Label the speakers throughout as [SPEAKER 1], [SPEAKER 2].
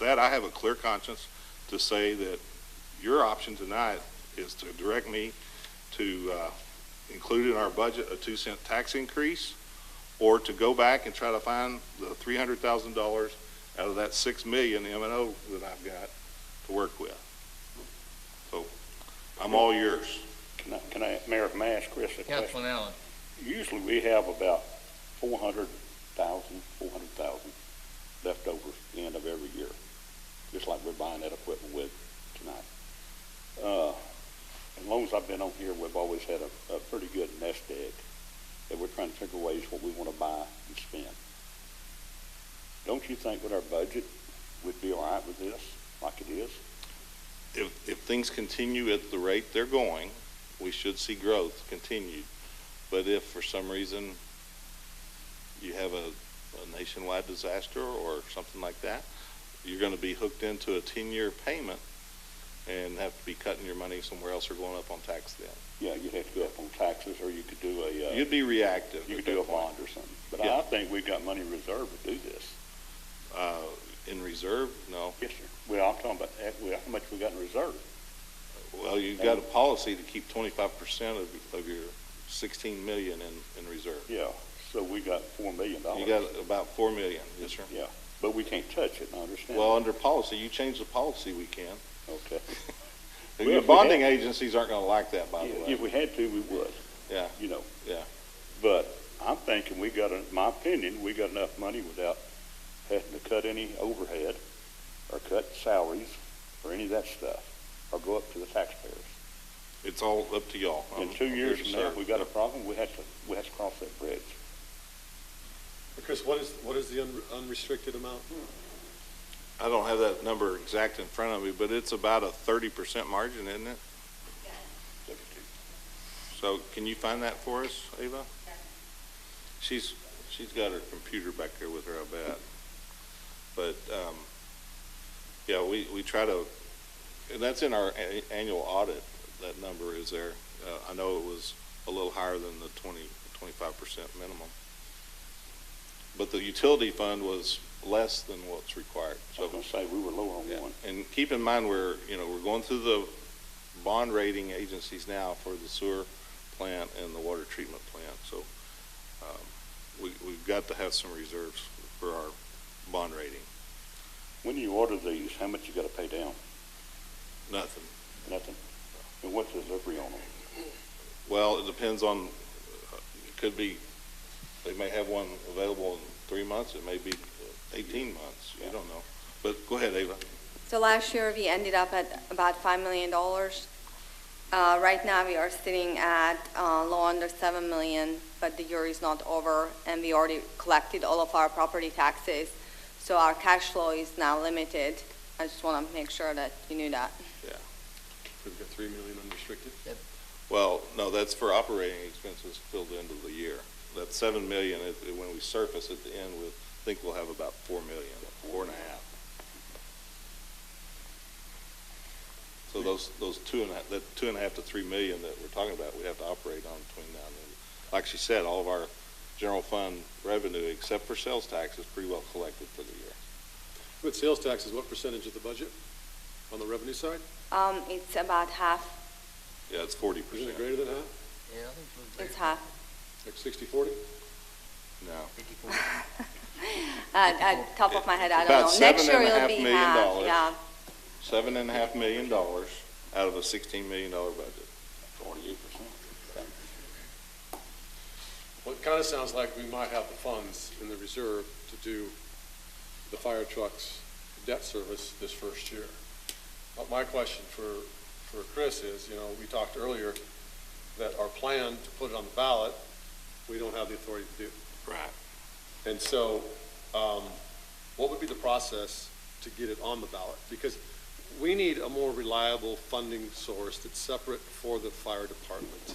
[SPEAKER 1] that, I have a clear conscience to say that your option tonight is to direct me to uh, include in our budget a two cent tax increase, or to go back and try to find the three hundred thousand dollars out of that six million M and O that I've got to work with. So, I'm all yours.
[SPEAKER 2] Can I, can I, Mayor, may I ask Chris a question?
[SPEAKER 3] Councilman Allen,
[SPEAKER 2] Usually we have about four hundred thousand, four hundred thousand left over at the end of every year, just like we're buying that equipment with tonight. Uh, as long as I've been on here, we've always had a, a pretty good nest egg, that we're trying to figure ways what we wanna buy and spend. Don't you think with our budget, we'd be all right with this, like it is?
[SPEAKER 1] If, if things continue at the rate they're going, we should see growth continued. But if for some reason you have a, a nationwide disaster or something like that, you're gonna be hooked into a ten-year payment and have to be cutting your money somewhere else or going up on tax then.
[SPEAKER 2] Yeah, you'd have to go up on taxes, or you could do a, uh.
[SPEAKER 1] You'd be reactive
[SPEAKER 2] You
[SPEAKER 1] at
[SPEAKER 2] could
[SPEAKER 1] that
[SPEAKER 2] do a
[SPEAKER 1] point.
[SPEAKER 2] bond or something, but I
[SPEAKER 1] Yeah.
[SPEAKER 2] think we've got money reserved to do this.
[SPEAKER 1] Uh, in reserve? No.
[SPEAKER 2] Yes, sir. Well, I'm talking about, eh, well, how much we got in reserve?
[SPEAKER 1] Well, you've got a policy to keep twenty-five percent of, of your sixteen million in, in reserve.
[SPEAKER 2] Yeah, so we got four million dollars.
[SPEAKER 1] You got about four million, yes, sir?
[SPEAKER 2] Yeah, but we can't touch it, I understand.
[SPEAKER 1] Well, under policy, you change the policy, we can.
[SPEAKER 2] Okay.
[SPEAKER 1] Your
[SPEAKER 2] Well, if we had-
[SPEAKER 1] bonding agencies aren't gonna like that, by the
[SPEAKER 2] If
[SPEAKER 1] way.
[SPEAKER 2] we had to, we would.
[SPEAKER 1] Yeah.
[SPEAKER 2] You know.
[SPEAKER 1] Yeah.
[SPEAKER 2] But I'm thinking we got, en- my opinion, we got enough money without having to cut any overhead or cut salaries or any of that stuff, or go up to the taxpayers.
[SPEAKER 1] It's all up to y'all.
[SPEAKER 2] In
[SPEAKER 1] I'm-
[SPEAKER 2] two
[SPEAKER 1] I'm here
[SPEAKER 2] years
[SPEAKER 1] to
[SPEAKER 2] from now, if
[SPEAKER 1] serve.
[SPEAKER 2] we got a problem, we have to, we have to cross that bridge.
[SPEAKER 4] Chris, what is, what is the un- unrestricted amount?
[SPEAKER 1] I don't have that number exact in front of me, but it's about a thirty percent margin, isn't it? So can you find that for us, Ava? She's, she's got her computer back there with her, I bet. But, um, yeah, we, we try to, and that's in our a- annual audit, that number is there. Uh, I know it was a little higher than the twenty, twenty-five percent minimum. But the utility fund was less than what's required,
[SPEAKER 2] I
[SPEAKER 1] so.
[SPEAKER 2] was gonna say, we were lower on
[SPEAKER 1] Yeah,
[SPEAKER 2] one.
[SPEAKER 1] And keep in mind, we're, you know, we're going through the bond rating agencies now for the sewer plant and the water treatment plant, so um, we, we've got to have some reserves for our bond rating.
[SPEAKER 2] When you order these, how much you gotta pay down?
[SPEAKER 1] Nothing.
[SPEAKER 2] Nothing. And what's the delivery on them?
[SPEAKER 1] Well, it depends on, uh, it could be, they may have one available in three months, it may be eighteen months, you don't know. But go ahead, Ava.
[SPEAKER 5] So last year, we ended up at about $5 million. Uh, Right now, we are sitting at uh, low under 7 million, but the year is not over, and we already collected all of our property taxes, so our cash flow is now limited. I just want to make sure that you knew that.
[SPEAKER 4] We've got three million unrestricted.
[SPEAKER 1] Well, no, that's for operating expenses till the end of the year. That seven million, it- it- when we surface at the end, we'll, think we'll have about four million, four and a half. So those, those two and a, half- that two and a half to three million that we're talking about, we have to operate on between now and then. Like she said, all of our general fund revenue, except for sales tax, is pretty well collected for the year.
[SPEAKER 4] With sales taxes, what percentage of the budget on the revenue side?
[SPEAKER 5] Um, It's about half,
[SPEAKER 1] Yeah, it's forty
[SPEAKER 4] Isn't it
[SPEAKER 1] percent.
[SPEAKER 4] greater than half,
[SPEAKER 3] yeah, I think we're
[SPEAKER 5] it's half.
[SPEAKER 4] like sixty, forty?
[SPEAKER 1] No.
[SPEAKER 3] fifty-four.
[SPEAKER 5] At at top of my head, I
[SPEAKER 1] About
[SPEAKER 5] don't know.
[SPEAKER 1] seven
[SPEAKER 5] Next year
[SPEAKER 1] and a
[SPEAKER 5] it'll
[SPEAKER 1] half
[SPEAKER 5] be
[SPEAKER 1] million
[SPEAKER 5] half,
[SPEAKER 1] dollars.
[SPEAKER 5] yeah.
[SPEAKER 1] Seven and a half million dollars out of a sixteen million dollar budget.
[SPEAKER 2] Forty-eight percent.
[SPEAKER 4] Well, it kind of sounds like we might have the funds in the reserve to do the fire trucks debt service this first year. But my question for, for Chris is, you know, we talked earlier that our plan to put it on the ballot, we don't have the authority to do.
[SPEAKER 1] Right.
[SPEAKER 4] And so, um, what would be the process to get it on the ballot? Because we need a more reliable funding source that's separate for the fire department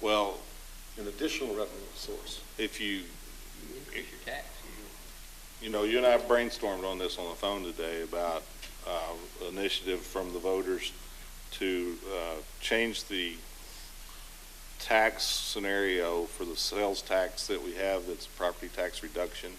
[SPEAKER 1] Well,
[SPEAKER 4] an additional revenue source.
[SPEAKER 1] if you,
[SPEAKER 3] Increase your tax.
[SPEAKER 1] you know, you and I brainstormed on this on the phone today about uh, initiative from the voters to uh, change the tax scenario for the sales tax that we have, that's property tax reduction,